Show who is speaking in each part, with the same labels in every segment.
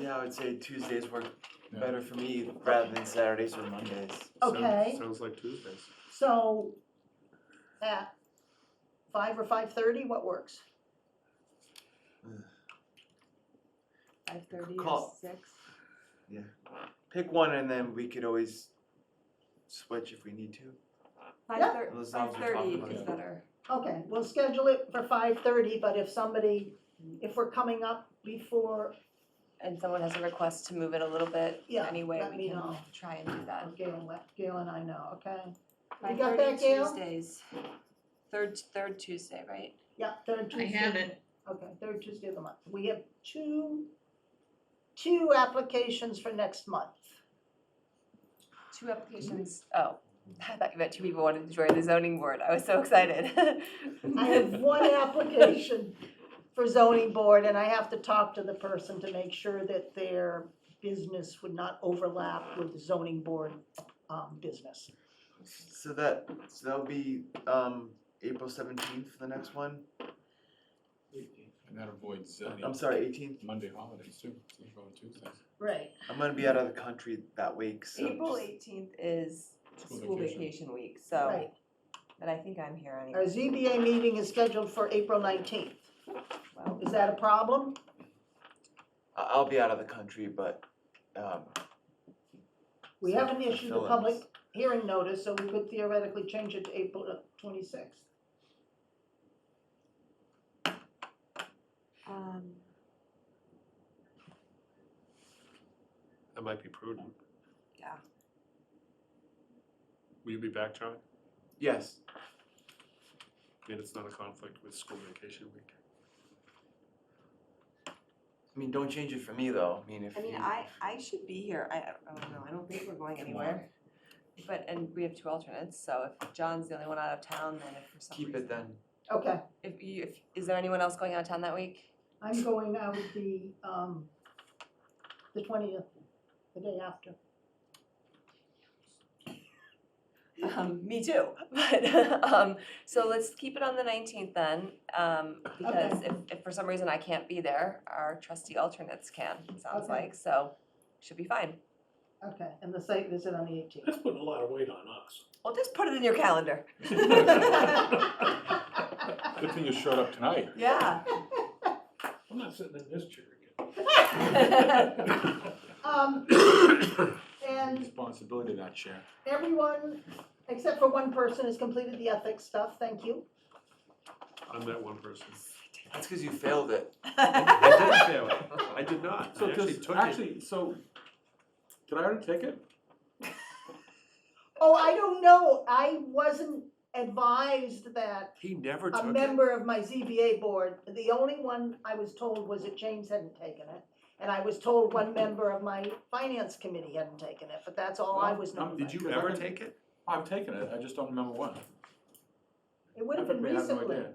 Speaker 1: now, I would say Tuesdays work
Speaker 2: Yeah.
Speaker 1: better for me rather than Saturdays or Mondays.
Speaker 2: Sounds-
Speaker 3: Okay.
Speaker 2: Sounds like Tuesdays.
Speaker 3: So at five or five thirty, what works?
Speaker 4: Five thirty or
Speaker 1: Call.
Speaker 4: six?
Speaker 1: Pick one and then we could always switch if we need to.
Speaker 4: Five thirty,
Speaker 1: Well, as long
Speaker 4: five
Speaker 1: as we're talking
Speaker 4: thirty
Speaker 1: about
Speaker 4: is
Speaker 1: it.
Speaker 4: better.
Speaker 3: Okay, we'll schedule it for five thirty, but if somebody, if we're coming up before,
Speaker 5: and someone has a request to move it a little bit,
Speaker 3: Yeah,
Speaker 5: anyway,
Speaker 3: let
Speaker 5: we
Speaker 3: me
Speaker 5: can
Speaker 3: know.
Speaker 5: try and do that.
Speaker 3: Gail, let- Gail and I know, okay? You
Speaker 4: Five
Speaker 3: got
Speaker 4: thirty
Speaker 3: that, Gail?
Speaker 5: Tuesdays, third, third Tuesday, right?
Speaker 3: Yeah, third
Speaker 6: I
Speaker 3: Tuesday.
Speaker 6: have it.
Speaker 3: Okay, third Tuesday of the month. We have two, two applications for next month.
Speaker 5: Two applications, oh, I thought you meant two people wanted to join the zoning board, I was so excited.
Speaker 3: I have one application for zoning board and I have to talk to the person to make sure that their business would not overlap with the zoning board, um, business.
Speaker 1: So that, so that'll be, um, April seventeenth for the next one.
Speaker 2: And that avoids uh,
Speaker 1: I'm
Speaker 2: the
Speaker 1: sorry, eighteenth.
Speaker 2: Monday holidays too, so you go on Tuesdays.
Speaker 3: Right.
Speaker 1: I'm gonna be out of the country that week, so.
Speaker 5: April
Speaker 1: just-
Speaker 5: eighteenth is
Speaker 2: School
Speaker 5: school
Speaker 2: vacation.
Speaker 5: vacation week, so,
Speaker 3: Right.
Speaker 5: but I think I'm here
Speaker 3: Our
Speaker 5: anyway,
Speaker 3: ZBA meeting is scheduled for April nineteenth.
Speaker 5: well,
Speaker 3: Is that a problem?
Speaker 1: I- I'll be out of the country, but, um.
Speaker 3: We
Speaker 1: so
Speaker 3: haven't issued a
Speaker 1: fill-ins.
Speaker 3: public hearing notice, so we could theoretically change it to April twenty-sixth.
Speaker 4: Um,
Speaker 2: That might be prudent.
Speaker 5: Yeah.
Speaker 2: Will you be back, John?
Speaker 1: Yes,
Speaker 2: I mean, it's not a conflict with school vacation week.
Speaker 1: I mean, don't change it for me though, I mean, if
Speaker 5: I
Speaker 1: you.
Speaker 5: mean, I, I should be here, I, I don't know, I don't think we're going
Speaker 2: Come
Speaker 5: anywhere. But, and we have two alternates, so if John's the only one out of town, then if for some
Speaker 1: Keep
Speaker 5: reason.
Speaker 1: it then.
Speaker 3: Okay,
Speaker 5: If you, if, is there anyone else going out of town that week?
Speaker 3: I'm going out the, um, the twentieth, the day after.
Speaker 5: Um, me too, but, um, so let's keep it on the nineteenth then, um, because if, if for some reason I can't be there, our trustee alternates can, it sounds
Speaker 3: Okay.
Speaker 5: like, so should be fine.
Speaker 3: Okay, and the site visit on the eighteenth.
Speaker 7: That's putting a lot of weight on us.
Speaker 5: Well, just put it in your calendar.
Speaker 2: Good thing you showed up tonight.
Speaker 5: Yeah.
Speaker 7: I'm not sitting in this chair again.
Speaker 3: Um, and
Speaker 2: Responsibility that chair.
Speaker 3: everyone, except for one person, has completed the ethics stuff, thank you.
Speaker 2: I'm that one person.
Speaker 1: That's because you failed it.
Speaker 2: I did fail it. I did not.
Speaker 7: So
Speaker 2: I actually
Speaker 7: does,
Speaker 2: took it.
Speaker 7: actually, so, did I already take it?
Speaker 3: Oh, I don't know, I wasn't advised that
Speaker 2: He never
Speaker 3: a
Speaker 2: took it.
Speaker 3: member of my ZBA board, the only one I was told was that James hadn't taken it. And I was told one member of my finance committee hadn't taken it, but that's all Oh, I was
Speaker 7: Well,
Speaker 3: known.
Speaker 2: Did you
Speaker 7: Because I
Speaker 2: ever
Speaker 7: can-
Speaker 2: take it?
Speaker 7: I've taken it, I just don't remember when.
Speaker 3: It would have been
Speaker 7: I have no
Speaker 3: recently.
Speaker 7: idea.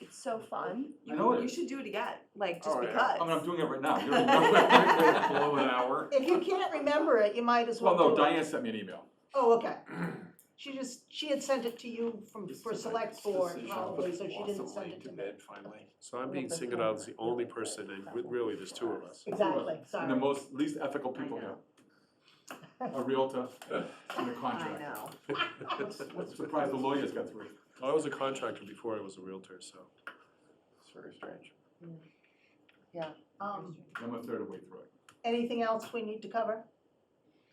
Speaker 5: It's so fun.
Speaker 7: I know it
Speaker 5: You
Speaker 7: is.
Speaker 5: should do it again, like, just
Speaker 7: All right,
Speaker 5: because.
Speaker 7: I mean, I'm doing it right now, you're you're below an hour.
Speaker 3: If you can't remember it, you might as well
Speaker 7: Well,
Speaker 3: do it.
Speaker 7: no, Diane sent me an email.
Speaker 3: Oh, okay. She just, she had sent it to you from,
Speaker 2: This
Speaker 3: for
Speaker 2: is like
Speaker 3: select
Speaker 2: this
Speaker 3: board
Speaker 2: decision
Speaker 3: probably,
Speaker 2: was
Speaker 3: so she didn't send
Speaker 2: possibly
Speaker 3: it to me.
Speaker 2: bed finally. So I'm being singled out as the only person, and re- really, there's two of us.
Speaker 3: Exactly,
Speaker 7: And the
Speaker 3: sorry.
Speaker 7: most, least ethical people here. A realtor and a
Speaker 5: I
Speaker 7: contract.
Speaker 5: know.
Speaker 7: I'm surprised the lawyers got through.
Speaker 2: I was a contractor before I was a realtor, so.
Speaker 7: It's very strange.
Speaker 3: Um,
Speaker 7: I'm a third of the way through it.
Speaker 3: anything else we need to cover?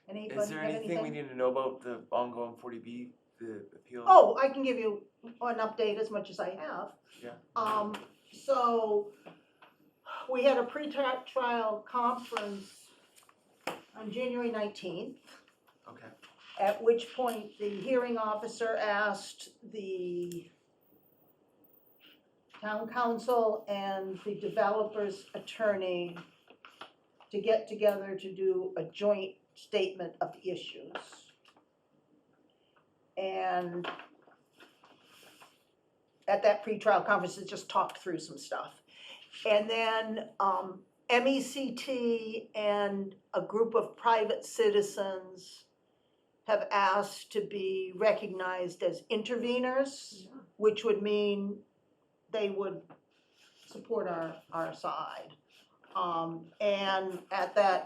Speaker 3: Anybody
Speaker 1: Is there
Speaker 3: have
Speaker 1: anything we need to know about the ongoing forty B, the appeal?
Speaker 3: Oh, I can give you an update as much as I have.
Speaker 1: Yeah.
Speaker 3: Um, so, we had a pre-trial conference on January nineteenth.
Speaker 1: Okay.
Speaker 3: At which point, the hearing officer asked the town council and the developer's attorney to get together to do a joint statement of the issues. And at that pretrial conference, they just talked through some stuff. And then, um, MECT and a group of private citizens have asked to be recognized as interveners, which would mean they would support our, our side. Um, and at that